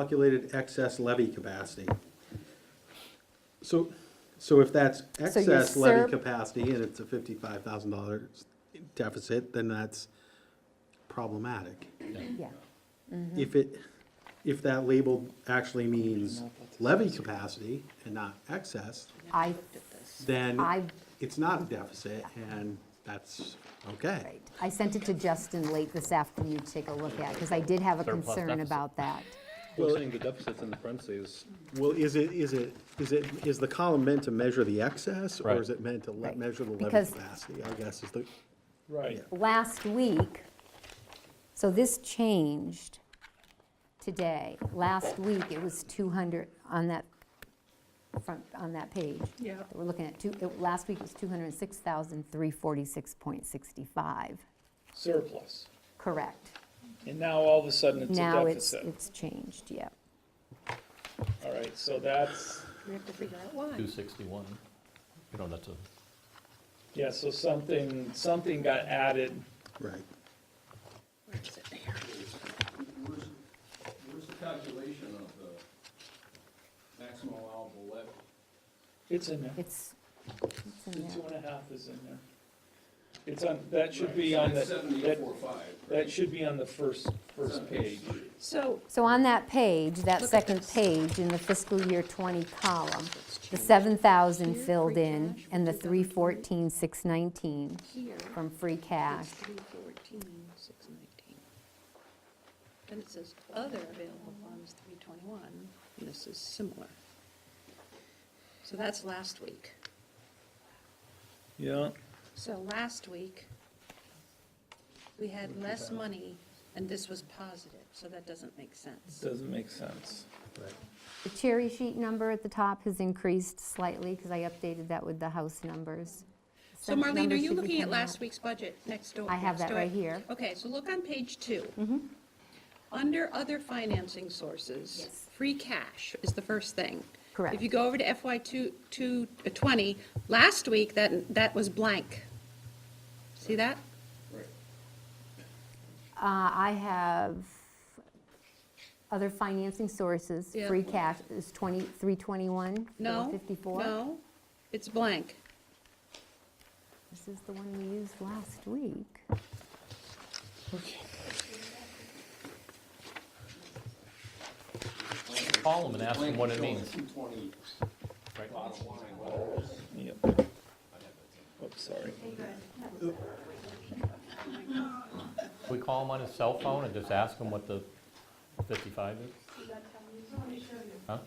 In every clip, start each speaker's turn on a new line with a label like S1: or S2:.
S1: calculated excess levy capacity. So, so if that's
S2: So your
S1: excess levy
S2: surp-
S1: capacity and it's a fifty-five thousand dollar deficit, then that's problematic.
S2: yeah. Mm-hmm.
S1: If it, if that label actually means levy capacity and not excess,
S2: I,
S1: then
S2: I-
S1: it's not a deficit and that's okay.
S2: right. I sent it to Justin late this afternoon to take a look at, because I did have a
S3: Surplus
S2: concern
S3: deficit.
S2: about that.
S3: We're saying the deficit's in the parentheses.
S1: Well, is it, is it, is it, is the column meant to measure the excess? Or
S3: Right.
S1: is it meant to le-
S2: Right,
S1: measure the levy
S2: because-
S1: capacity, I guess is the,
S3: Right.
S2: last week, so this changed today. Last week, it was 200 on that front, on that page.
S4: Yeah.
S2: that We're looking at two, it- last week was 206,346.65.
S5: surplus.
S2: Correct.
S5: And now all of a sudden it's a
S2: Now it's,
S5: deficit.
S2: it's changed, yeah.
S5: All right, so that's,
S4: We have to figure out why.
S3: Two sixty-one. You know, that's a,
S5: yeah, so something, something got added.
S1: right.
S4: Where is it? Here.
S6: Where's, where's the calculation of the maximum allowable levy?
S5: It's in there.
S2: It's, it's
S5: The
S2: in
S5: two
S2: there.
S5: and a half is in there. It's on, that should be on the, that,
S6: Seventy-four five.
S5: that should be on the first, first page.
S4: So,
S2: So on that page, that
S4: Look at
S2: second
S4: this.
S2: page in the fiscal year 20 column, the 7,000
S4: Here,
S2: filled
S4: free
S2: in
S4: cash,
S2: and the
S4: 2020.
S2: 314,619
S4: here,
S2: from free cash.
S4: it's three fourteen, six nineteen. And it says other available funds, three twenty-one, and this is similar. So that's last week.
S5: Yeah.
S4: So last week, we had less money, and this was positive, so that doesn't make sense.
S5: Doesn't make sense.
S2: The cherry sheet number at the top has increased slightly because I updated that with the house numbers.
S4: So
S2: Sense
S4: Marlene, are
S2: numbers
S4: you
S2: should be
S4: looking at
S2: coming out.
S4: last week's budget next door?
S2: I have that
S4: next to
S2: right
S4: it?
S2: here. Mm-hmm.
S4: Okay, so look on page 2 Under other financing sources,
S2: Yes.
S4: free cash is the first thing.
S2: Correct.
S4: If you go over to FY two, two, uh, twenty, last week, that, that was blank. See that?
S2: Uh, I have other financing sources,
S4: Yeah.
S2: free cash is 20, 321,
S4: No?
S2: 54.
S4: No, it's blank.
S2: This is the one we used last week.
S3: call them and ask them what it means.
S6: Two twenty
S3: Right.
S6: bottom line, well,
S5: Yep. Oops, sorry.
S3: We call them on his cell phone and just ask them what the fifty-five is? Huh?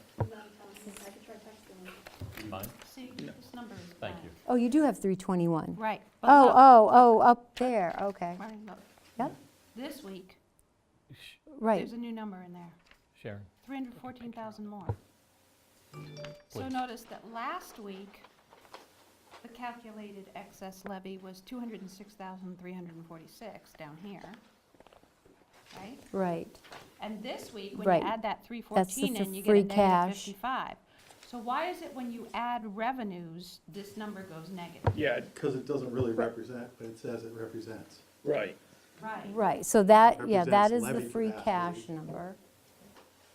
S3: Mine?
S7: See, this number is
S3: Thank you.
S2: Oh, you do have 321.
S7: Right. but
S2: Oh,
S7: up-
S2: oh, oh, up there, okay.
S7: right, up.
S2: Yep,
S7: This week,
S3: Sh-
S2: right.
S7: there's a new number in there,
S3: Sharon,
S7: 314,000 more. So
S3: Please.
S7: notice that last week, the calculated excess levy was 206,346 down here, right?
S2: Right.
S7: And this week, when
S2: Right.
S7: you add that
S2: That's
S7: 314
S2: the
S7: in, you get
S2: free
S7: a negative
S2: cash.
S7: 55. So why is it when you add revenues, this number goes negative?
S5: Yeah,
S1: Because it doesn't really represent, but it says it represents.
S5: right.
S7: Right.
S2: Right, so that, yeah, that
S1: Represents
S2: is the
S1: levy
S2: free
S1: capacity.
S2: cash number.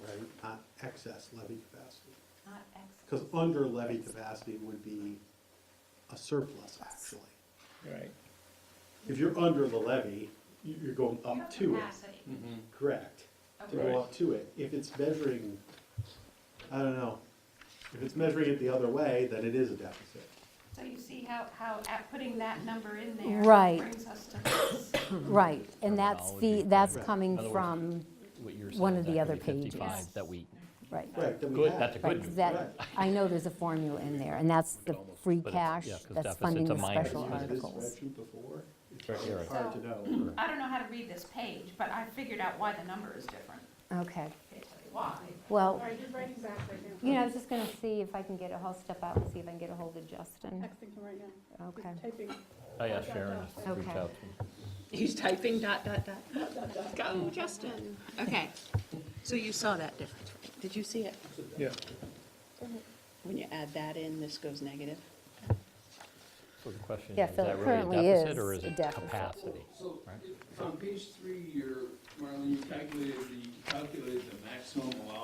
S1: Right. Not excess levy capacity.
S7: Not excess.
S1: Because under levy capacity would be a surplus, actually.
S5: Right.
S1: If you're under the levy, you- you're going up to it.
S7: Capacity.
S1: Correct. To
S5: Okay.
S1: go up to it. If it's measuring, I don't know, if it's measuring it the other way, then it is a deficit.
S7: So you see how, how at putting that number in there.
S2: Right.
S7: Brings us to this.
S2: Right, and that's the,
S3: Terminology,
S2: that's
S1: right.
S2: coming
S3: Otherwise-
S2: from,
S3: what you're saying.
S2: One
S3: is
S2: of the
S3: actually
S2: other pages.
S3: 55 That we,
S2: right.
S1: Right, then we
S3: good,
S1: have-
S3: that's a
S2: Right,
S3: good news.
S2: that, I know there's a formula in there, and that's the free
S3: but it's-
S2: cash
S3: yeah, 'cause
S2: that's
S3: deficit's
S2: funding
S3: a
S2: the
S3: minus.
S2: special
S1: I've used this
S2: articles.
S1: spreadsheet before. It's
S3: Right here.
S1: Hard to know.
S7: I don't know how to read this page, but I figured out why the number is different.
S2: Okay,
S7: I can tell you Why?
S2: well,
S4: just writing back right now.
S2: you know, I was just gonna see if I can get a, I'll step out and see if I can get a hold of Justin.
S4: right now.
S2: Okay,
S4: Typing.
S3: I asked oh, Sharon to reach
S2: Okay.
S3: out to him.
S4: He's typing dot, dot, dot. Go, Justin. Okay, so you saw that difference. Did you see it?
S5: Yeah.
S4: When you add that in, this goes negative?
S3: So the question
S2: Yeah,
S3: is, is
S2: Phil, it
S3: that really
S2: currently
S3: a deficit
S2: is
S3: or is
S2: a
S3: it
S2: deficit.
S3: capacity?
S6: So,
S3: Right.
S6: on page three, you're, Marlene, you calculated the, you calculated the maximum